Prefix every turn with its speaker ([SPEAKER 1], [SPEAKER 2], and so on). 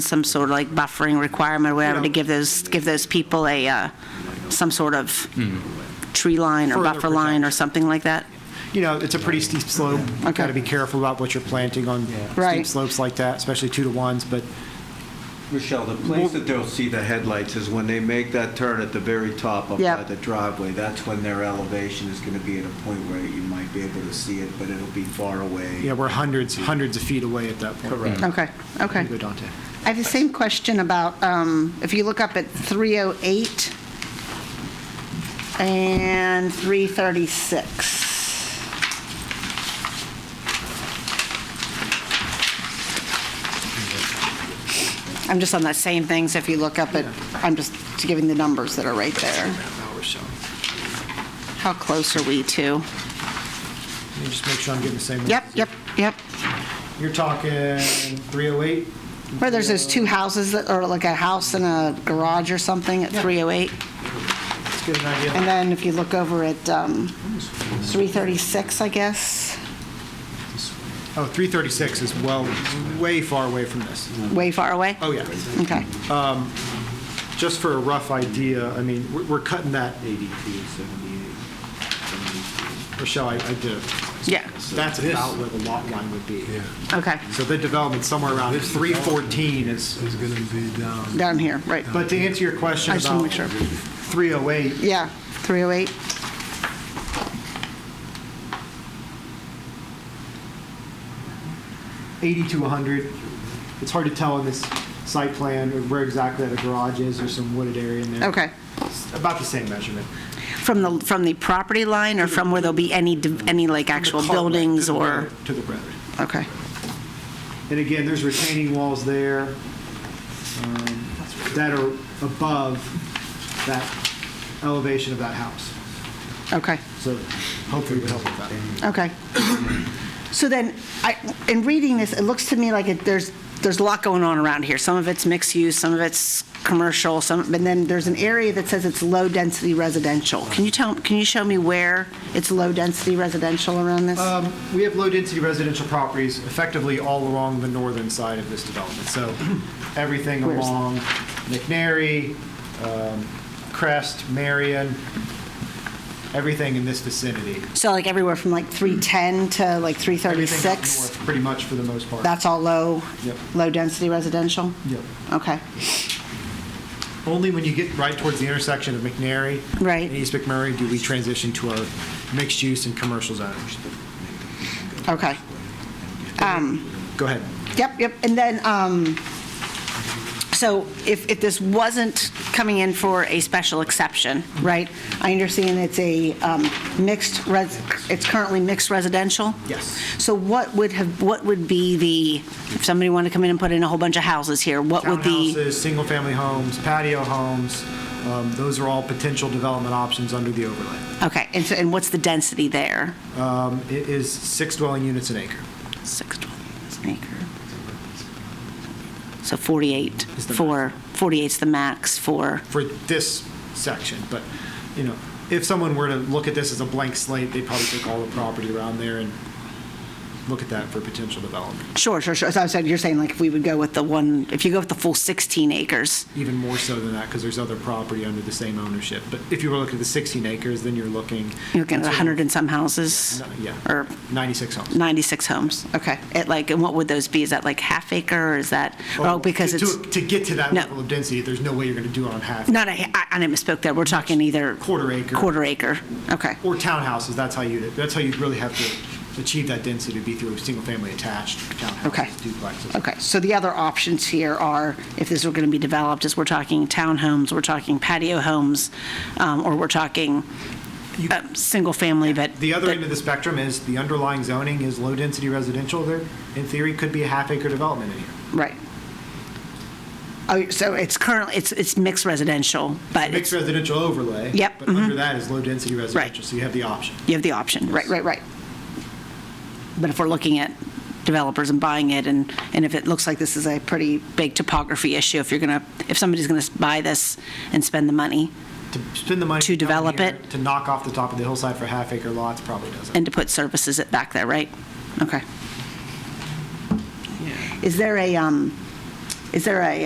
[SPEAKER 1] some sort of like buffering requirement, or whatever, to give those, give those people a, uh, some sort of tree line or
[SPEAKER 2] Further
[SPEAKER 1] buffer line or something like that?
[SPEAKER 2] You know, it's a pretty steep slope. You've got
[SPEAKER 1] Okay.
[SPEAKER 2] to be careful about what you're planting on steep
[SPEAKER 1] Right.
[SPEAKER 2] slopes like that, especially two to ones, but
[SPEAKER 3] Michelle, the place that they'll see the headlights is when they make that turn at the very top up
[SPEAKER 1] Yep.
[SPEAKER 3] by the driveway. That's when their elevation is going to be at a point where you might be able to see it, but it'll be far away.
[SPEAKER 2] yeah, we're hundreds, hundreds of feet away at that point.
[SPEAKER 3] Correct.
[SPEAKER 1] Okay, Oh, okay.
[SPEAKER 2] Go down to-
[SPEAKER 1] I have the same question about, um, if you look up at 308 and 336. I'm just on that same thing, so if you look up at, I'm just giving the numbers that are right there. How close are we to?
[SPEAKER 2] Let me just make sure I'm getting the same.
[SPEAKER 1] Yep, yep, yep.
[SPEAKER 2] You're talking 308?
[SPEAKER 1] Where there's those two houses that, or like a house and a garage or something at 308?
[SPEAKER 2] Let's get an
[SPEAKER 1] And
[SPEAKER 2] idea.
[SPEAKER 1] then if you look over at um, 336, I guess,
[SPEAKER 2] Oh, 336 is well, way far away from this.
[SPEAKER 1] way far away?
[SPEAKER 2] Oh, yeah.
[SPEAKER 1] Okay,
[SPEAKER 2] Just for a rough idea, I mean, we're- we're cutting that,
[SPEAKER 3] 82, 78,
[SPEAKER 2] Rochelle, I I did,
[SPEAKER 1] yeah,
[SPEAKER 2] that's about where the lot line would be.
[SPEAKER 1] okay,
[SPEAKER 2] So the development somewhere around 314 is,
[SPEAKER 4] is going to be down.
[SPEAKER 1] down here, right.
[SPEAKER 2] but to answer your question
[SPEAKER 1] I just wanna
[SPEAKER 2] about
[SPEAKER 1] make sure.
[SPEAKER 2] 308,
[SPEAKER 1] Yeah, 308,
[SPEAKER 2] eighty to hundred. It's hard to tell on this site plan where exactly the garage is, there's some wooded area in there.
[SPEAKER 1] okay.
[SPEAKER 2] It's About the same measurement.
[SPEAKER 1] From the, from the property line or from where there'll be any, d- any like actual
[SPEAKER 2] The cartway
[SPEAKER 1] buildings
[SPEAKER 2] to the
[SPEAKER 1] or?
[SPEAKER 2] road, To the road.
[SPEAKER 1] Okay,
[SPEAKER 2] And again, there's retaining walls there um, that are above that elevation of that house.
[SPEAKER 1] okay.
[SPEAKER 2] So hopefully it would help with that.
[SPEAKER 1] Okay. So then, I, in reading this, it looks to me like it, there's, there's a lot going on around here. Some of it's mixed use, some of it's commercial, some, and then there's an area that says it's low-density residential. Can you tell, can you show me where it's low-density residential around this?
[SPEAKER 2] Um, We have low-density residential properties effectively all along the northern side of this development. So everything
[SPEAKER 1] Where's that?
[SPEAKER 2] along McNary, um, Crest, Marion, everything in this vicinity.
[SPEAKER 1] So like everywhere from like 310 to like
[SPEAKER 2] Everything up
[SPEAKER 1] 336?
[SPEAKER 2] north, Pretty much for the most part.
[SPEAKER 1] That's all low,
[SPEAKER 2] Yep.
[SPEAKER 1] low-density residential?
[SPEAKER 2] Yep.
[SPEAKER 1] Okay,
[SPEAKER 2] Only when you get right towards the intersection of McNary
[SPEAKER 1] Right.
[SPEAKER 2] and East McMurray do we transition to our mixed-use and commercial zones.
[SPEAKER 1] okay.
[SPEAKER 2] Go ahead.
[SPEAKER 1] Yep, yep. And then, um, so if, if this wasn't coming in for a special exception, right? I understand it's a um, mixed, res- it's currently mixed residential?
[SPEAKER 2] Yes.
[SPEAKER 1] So what would have, what would be the, if somebody wanted to come in and put in a whole bunch of houses here, what would the?
[SPEAKER 2] Townhouses, single-family homes, patio homes, um, those are all potential development options under the overlay.
[SPEAKER 1] Okay, and so, and what's the density there?
[SPEAKER 2] Um, It is six dwelling units an acre.
[SPEAKER 1] Six dwellings an acre. So 48
[SPEAKER 2] Is the
[SPEAKER 1] for, 48's the max for,
[SPEAKER 2] for this section, but, you know, if someone were to look at this as a blank slate, they'd probably take all the property around there and look at that for potential development,
[SPEAKER 1] sure, sure, sure. So I said, you're saying like if we would go with the one, if you go with the full 16 acres?
[SPEAKER 2] even more so than that, because there's other property under the same ownership. But if you were looking at the 16 acres, then you're looking.
[SPEAKER 1] You're looking at 100 and some houses?
[SPEAKER 2] Yeah.
[SPEAKER 1] Or
[SPEAKER 2] 96 homes.
[SPEAKER 1] 96 homes? Okay. At like, and what would those be? Is that like half acre or is that, oh, because
[SPEAKER 2] To-
[SPEAKER 1] it's,
[SPEAKER 2] To to get to that
[SPEAKER 1] No.
[SPEAKER 2] level of density, there's no way you're going to do it on half.
[SPEAKER 1] not a, I I misspoke there. We're talking either.
[SPEAKER 2] Quarter acre.
[SPEAKER 1] Quarter acre. Okay.
[SPEAKER 2] Or townhouses, that's how you, that's how you'd really have to achieve that density, would be through single-family attached
[SPEAKER 1] Okay.
[SPEAKER 2] townhouses, duplexes.
[SPEAKER 1] Okay. So the other options here are, if this were going to be developed, is we're talking townhomes, we're talking patio homes, um, or we're talking um, single family, but.
[SPEAKER 2] The other
[SPEAKER 1] but-
[SPEAKER 2] end of the spectrum is the underlying zoning is low-density residential. There, in theory, could be a half-acre development in here.
[SPEAKER 1] Right. Oh, so it's currently, it's, it's mixed residential, but
[SPEAKER 2] Mixed
[SPEAKER 1] it's
[SPEAKER 2] residential overlay.
[SPEAKER 1] Yep, Mm-hmm.
[SPEAKER 2] But under that is low-density residential, so you have the option.
[SPEAKER 1] You have the option, right, right, right. But if we're looking at developers and buying it, and, and if it looks like this is a pretty big topography issue, if you're going to, if somebody's going to buy this and spend the money
[SPEAKER 2] To spend the money.
[SPEAKER 1] To
[SPEAKER 2] down
[SPEAKER 1] develop
[SPEAKER 2] here
[SPEAKER 1] it.
[SPEAKER 2] To knock off the top of the hillside for half-acre lots probably doesn't.
[SPEAKER 1] and to put services it back there, right? Okay. Is there a, um, Is there a